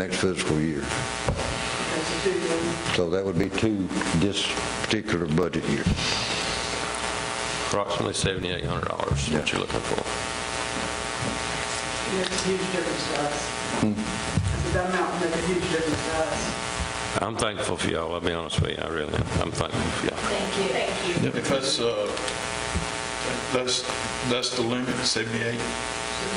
next fiscal year. So that would be two this particular budget year. Approximately $7,800 is what Yeah. you're looking for. Makes a huge difference to us. Hmm. That amount makes a huge difference to us. I'm thankful for y'all, I'll be honest with you, I really am. I'm thankful for y'all. Thank you. Thank you. If that's, uh, that's, that's the limit, 78?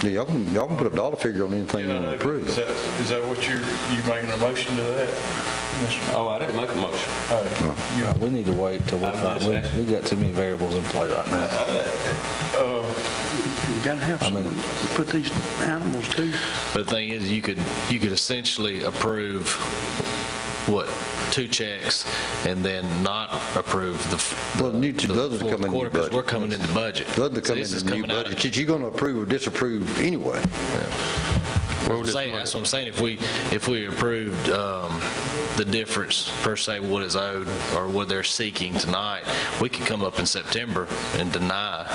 Yeah, Y'all can, y'all can put a dollar figure on anything you want to Uh, Is approve. that, is that what you're, you making a motion to that? Mr. Oh, I didn't make a motion. Howard? Uh, We need to wait till we I'm not find, we- saying- we got too many variables in play right now. You gotta have some, put these animals too. But the thing is, you could, you could essentially approve, what, two checks, and then not approve the. f- Well, new- the those are full coming in the quarter, 'cause budget. We're coming in the budget. Doesn't So come in this is the new coming out of- budget, that you're going to approve or disapprove anyway. Where would this Saying- money- That's what I'm saying, if we, if we approved um, the difference, per se, what is owed, or what they're seeking tonight, we could come up in September and deny,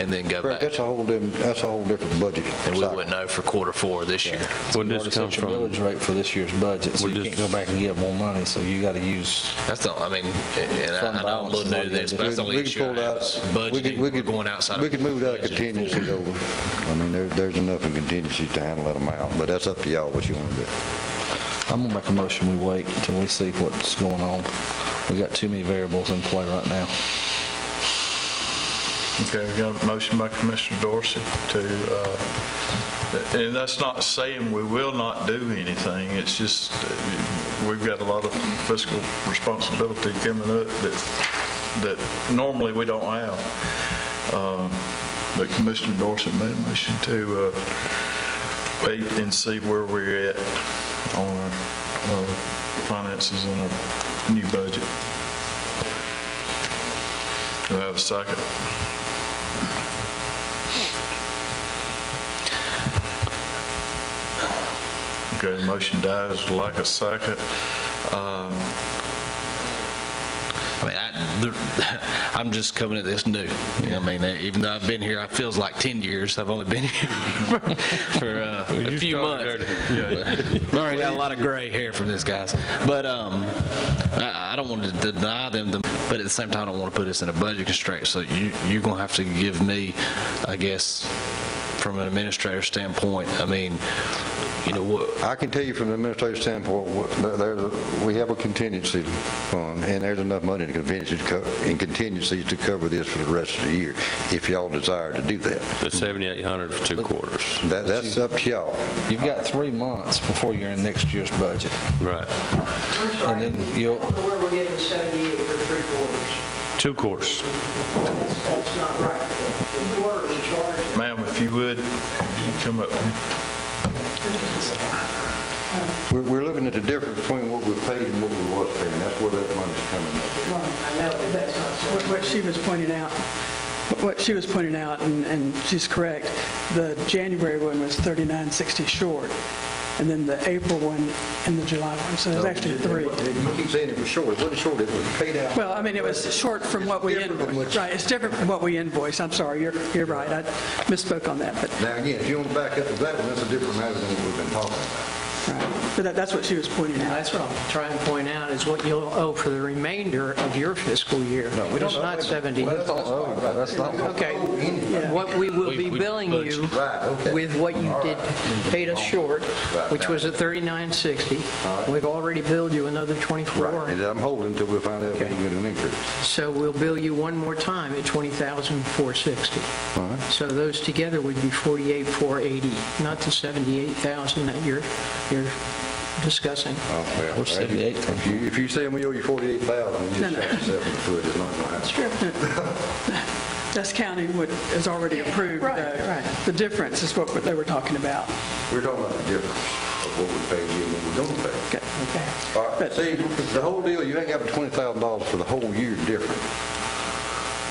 and then go Correct, back, That's a whole, dim- that's a whole different budget. and we cycle. wouldn't know for quarter four this year. Where'd Already this come set your from? Millage rate for this year's budget, so We're you just- can't go back and get more money, so you got to use, That's the, I mean, and I- I know I'm a little new to this, but that's the only We could issue I pull have out- is we could- we budgeting, we're could- going outside. We of could move that budget. contingency over. I mean, there, there's enough in contingency to handle that amount, but that's up to y'all what you want to do. I'm going to make a motion, we wait until we see what's going on. We got too many variables in play right now. Okay, we got a motion by Commissioner Dorsey to, uh, and that's not saying we will not do anything, it's just, uh, we've got a lot of fiscal responsibility coming up that, that normally we don't have. Um, But Commissioner Dorsey made a motion to uh, wait and see where we're at on our uh, finances and our new budget. Do I have a second? Okay, motion dies like a second. Um, I mean, I, the- I'm just coming at this new. You know, what I mean, even though I've been here, it feels like 10 years. I've only been here for uh, a few months. But- All right, got a lot of gray hair from this, guys. But um, I, I don't want to deny them, the, but at the same time, I don't want to put us in a budget constraint. So you, you're going to have to give me, I guess, from an administrator standpoint, I mean, you know, what, I can tell you from an administrative standpoint, what- there- there's, we have a contingency fund, and there's enough money in contingencies, to co- in contingencies to cover this for the rest of the year, if y'all desire to do that. The 7,800 for two quarters. That, that's up to y'all. You've got three months before you're in next year's budget. Right. I'm sorry, And then you'll- where we're getting 78 for three quarters. Two quarters. That's that's not right. The quarters are charged. Ma'am, if you would, you come up. We're, we're looking at the difference between what we paid and what we was paying, that's where that money's coming from. Well, I know, but that's not so. What- What she was pointing out, what she was pointing out, and- and she's correct, the January one was 3960 short, and then the April one and the July one, so Oh. there's actually three. You keep saying it was short, it wasn't short, it was paid out. Well, I mean, it was short from what we Different than what invoiced. you- Right, it's different from what we invoiced, I'm sorry, you're, you're right, I misspoke on that, but, Now, again, if you want to back up to that one, that's a different matter than what we've been talking about. right. but that- that's what she was pointing out. That's what I'm trying to point out, is what you'll owe for the remainder of your fiscal year. No, we don't It's owe not it. 70. That's not Okay. Yeah. What we will be We- we billing you budget. Right, okay. with what you did, paid us short, which was at 39.60. We've already billed you another 24. Right, and I'm holding until we find out if we can get an increase. So we'll bill you one more time at 20,460. All right. So those together would be 48,480, not the 78,000 that you're, you're discussing. Well, Where's 78 come If you, if you say we owe you forty-eight thousand, you No, just no. shot yourself in the foot, it's not gonna happen. That's counting what is already approved, though. The difference is what they were talking about. We're talking about the difference of what we pay you and what we don't pay. Okay. All right, see, the whole deal, you ain't got the twenty thousand dollars for the whole year difference.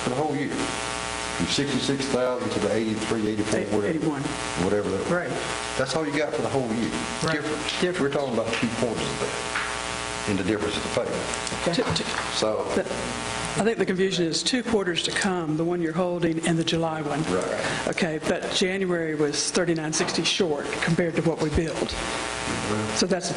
For the whole year. From sixty-six thousand to the eighty-three, eighty-four, Eight- whatever. 81. Whatever that was. Right. That's all you got for the whole year. Right. Difference. We're talking about two points of that, in the difference of the pay. To- to- So, I think the confusion is two quarters to come, the one you're holding and the July one. Right. Okay, but January was 3960 short compared to what we billed. So that's